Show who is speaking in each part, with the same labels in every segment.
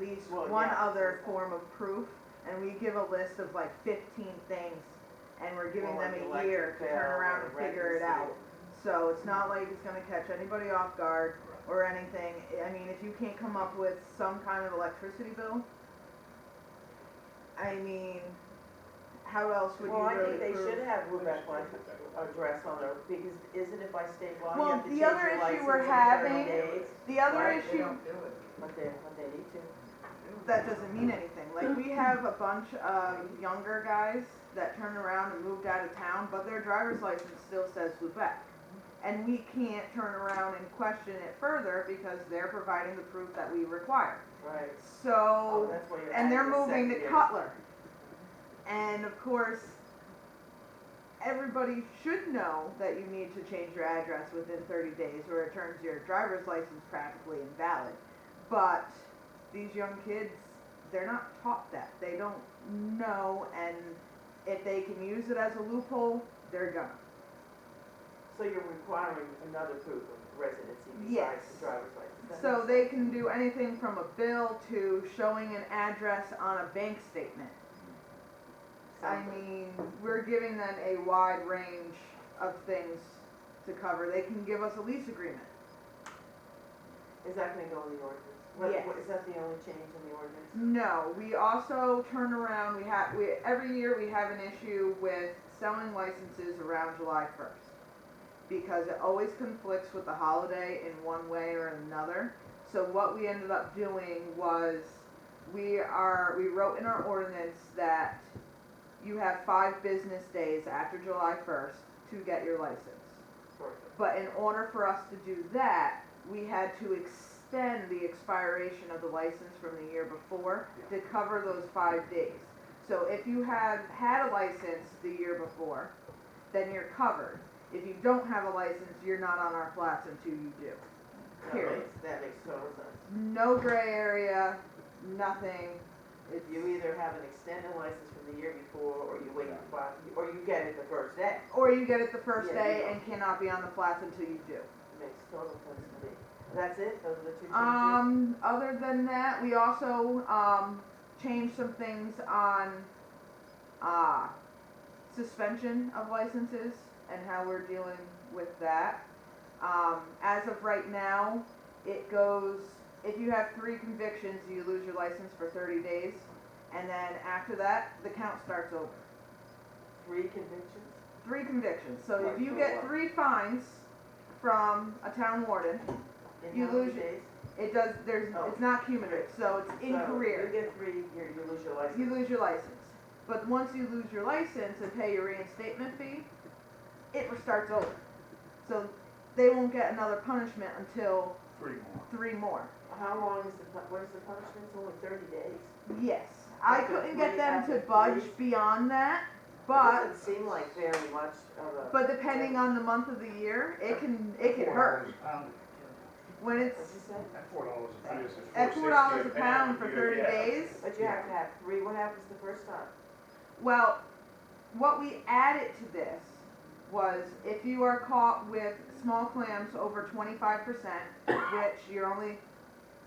Speaker 1: least
Speaker 2: Well,
Speaker 1: one
Speaker 2: yeah.
Speaker 1: other form of proof, and we give a list of like fifteen things, and we're giving
Speaker 2: Well,
Speaker 1: them
Speaker 2: like
Speaker 1: a
Speaker 2: electric
Speaker 1: year to
Speaker 2: bill
Speaker 1: turn around
Speaker 2: or
Speaker 1: and figure it
Speaker 2: rent a
Speaker 1: out. So it's not like it's gonna catch anybody off guard or anything. I mean, if you can't come up with some kind of electricity bill, I mean, how else would you
Speaker 2: Well, I
Speaker 1: really
Speaker 2: think they
Speaker 1: prove?
Speaker 2: should have Lubec one address on there, because isn't it by state law, you
Speaker 1: Well,
Speaker 2: have to
Speaker 1: the
Speaker 2: change your
Speaker 1: other
Speaker 2: license
Speaker 1: issue we're
Speaker 2: in thirty
Speaker 1: having-
Speaker 2: days?
Speaker 1: The other
Speaker 2: Right,
Speaker 1: issue
Speaker 2: But they, but they need to.
Speaker 1: that doesn't mean anything. Like we have a bunch of younger guys that turned around and moved out of town, but their driver's license still says Lubec. And we can't turn around and question it further because they're providing the proof that we require.
Speaker 2: Right. Oh,
Speaker 1: So,
Speaker 2: that's why you're
Speaker 1: and they're
Speaker 2: adding the
Speaker 1: moving to
Speaker 2: second year.
Speaker 1: Cutler. And of course, everybody should know that you need to change your address within thirty days or it turns your driver's license practically invalid. But these young kids, they're not taught that. They don't know and if they can use it as a loophole, they're gonna.
Speaker 2: So you're requiring another proof of residency
Speaker 1: Yes.
Speaker 2: besides the driver's license? That
Speaker 1: So
Speaker 2: makes
Speaker 1: they
Speaker 2: sense.
Speaker 1: can do anything from a bill to showing an address on a bank statement. I
Speaker 2: Something.
Speaker 1: mean, we're giving them a wide range of things to cover. They can give us a lease agreement.
Speaker 2: Is that gonna go in the ordinance? What-
Speaker 1: Yes. Mm.
Speaker 2: what- Is that the only change in the ordinance?
Speaker 1: No, we also turn around, we have, we, every year we have an issue with selling licenses around July first. Because it always conflicts with the holiday in one way or another. So what we ended up doing was, we are, we wrote in our ordinance that you have five business days after July first to get your license.
Speaker 2: Perfect.
Speaker 1: But in order for us to do that, we had to extend the expiration of the license from the year before to cover those five days. So if you have had a license the year before, then you're covered. If you don't have a license, you're not on our flats until you do.
Speaker 2: That
Speaker 1: Period.
Speaker 2: makes- That makes total sense.
Speaker 1: No gray area, nothing. It's,
Speaker 2: You either have an extended license from the year before, or you wait for five, or you get it the first day.
Speaker 1: or you get it the first
Speaker 2: Yeah,
Speaker 1: day
Speaker 2: yeah.
Speaker 1: and cannot be on the flats until you do.
Speaker 2: Makes total sense to me. That's it? Those are the two changes?
Speaker 1: Um, other than that, we also, um, changed some things on, uh, suspension of licenses and how we're dealing with that. Um, as of right now, it goes, if you have three convictions, you lose your license for thirty days. And then after that, the count starts over.
Speaker 2: Three convictions?
Speaker 1: Three convictions. So
Speaker 2: Like
Speaker 1: if you
Speaker 2: for
Speaker 1: get
Speaker 2: what?
Speaker 1: three fines from a town warden,
Speaker 2: In
Speaker 1: You
Speaker 2: how many
Speaker 1: lose your-
Speaker 2: days?
Speaker 1: it does, there's,
Speaker 2: Oh.
Speaker 1: it's not cumulative, so it's in
Speaker 2: So,
Speaker 1: career.
Speaker 2: You get three, you, you lose your license.
Speaker 1: you lose your license. But once you lose your license and pay your reinstatement fee, it starts over. So they won't get another punishment until
Speaker 3: Three more.
Speaker 1: three more.
Speaker 2: How long is the, pu- what is the punishment? It's only thirty days.
Speaker 1: Yes, I
Speaker 2: Okay,
Speaker 1: couldn't get
Speaker 2: we
Speaker 1: them
Speaker 2: have
Speaker 1: to
Speaker 2: to
Speaker 1: budge
Speaker 2: freeze.
Speaker 1: beyond that,
Speaker 2: It
Speaker 1: but,
Speaker 2: doesn't seem like very much of a.
Speaker 1: but depending on the month of the year, it can, it can
Speaker 3: Four
Speaker 1: hurt.
Speaker 3: dollars a pound.
Speaker 1: When it's
Speaker 2: What'd you say?
Speaker 3: At four dollars a pound. it's
Speaker 1: at four dollars a
Speaker 3: 4.60
Speaker 1: pound for
Speaker 3: you-
Speaker 1: thirty
Speaker 3: yeah.
Speaker 1: days,
Speaker 2: But you have to have three, what happens the first time?
Speaker 1: Well, what we added to this was if you are caught with small clams over twenty-five percent, which you're only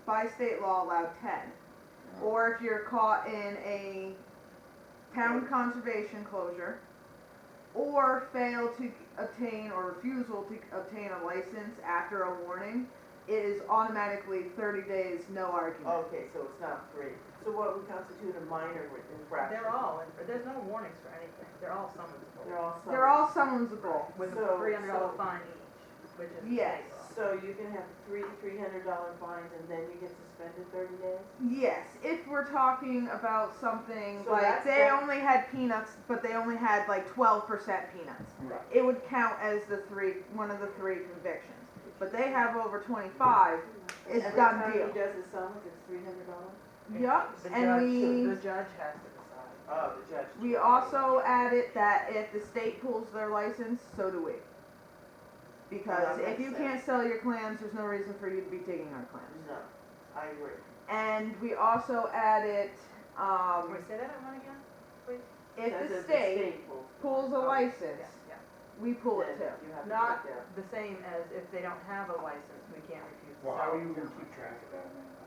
Speaker 1: by state law allowed ten, or if you're caught in a town conservation closure, or fail to obtain or refusal to obtain a license after a warning, it is automatically thirty days, no argument.
Speaker 2: Okay, so it's not three. So what would constitute a minor infraction?
Speaker 4: They're all, there's no warnings for anything, they're all
Speaker 2: They're
Speaker 4: summonsable,
Speaker 2: all.
Speaker 1: They're
Speaker 2: summoned.
Speaker 1: all summonsable.
Speaker 4: with
Speaker 2: So-
Speaker 4: a three hundred dollar
Speaker 2: so-
Speaker 4: fine each, which is.
Speaker 1: Yes.
Speaker 2: So you can have three, three hundred dollar fines and then you get suspended thirty days?
Speaker 1: Yes, if we're talking about something
Speaker 2: So
Speaker 1: like
Speaker 2: that's
Speaker 1: they
Speaker 2: that-
Speaker 1: only had peanuts, but they only had like twelve percent peanuts,
Speaker 3: Right.
Speaker 1: it would count as the three, one of the three convictions. But they have over twenty-five. It's
Speaker 2: Every
Speaker 1: done
Speaker 2: time
Speaker 1: deal.
Speaker 2: he does a summons, it's three hundred dollars?
Speaker 1: Yup,
Speaker 4: The judge-
Speaker 1: and
Speaker 4: The judge has to decide.
Speaker 2: Oh, the judge.
Speaker 1: we we also added that if the state pulls their license, so do we. Because
Speaker 2: Well, that
Speaker 1: if you
Speaker 2: makes
Speaker 1: can't sell your clams, there's no reason for you to be taking our clams.
Speaker 2: No, I agree.
Speaker 1: And we also added, um,
Speaker 4: Wait, say that at one again?
Speaker 1: if
Speaker 2: Says
Speaker 1: the state
Speaker 2: pulls it.
Speaker 1: pulls a
Speaker 2: Oh,
Speaker 1: license,
Speaker 4: Yeah,
Speaker 1: we pull it
Speaker 2: Then
Speaker 1: too.
Speaker 2: You have to
Speaker 4: Not-
Speaker 2: put that.
Speaker 4: yeah. The same as if they don't have a license, we can't refuse. to
Speaker 3: Well, how
Speaker 4: sell
Speaker 3: are you
Speaker 4: it.
Speaker 3: gonna keep track of that, man?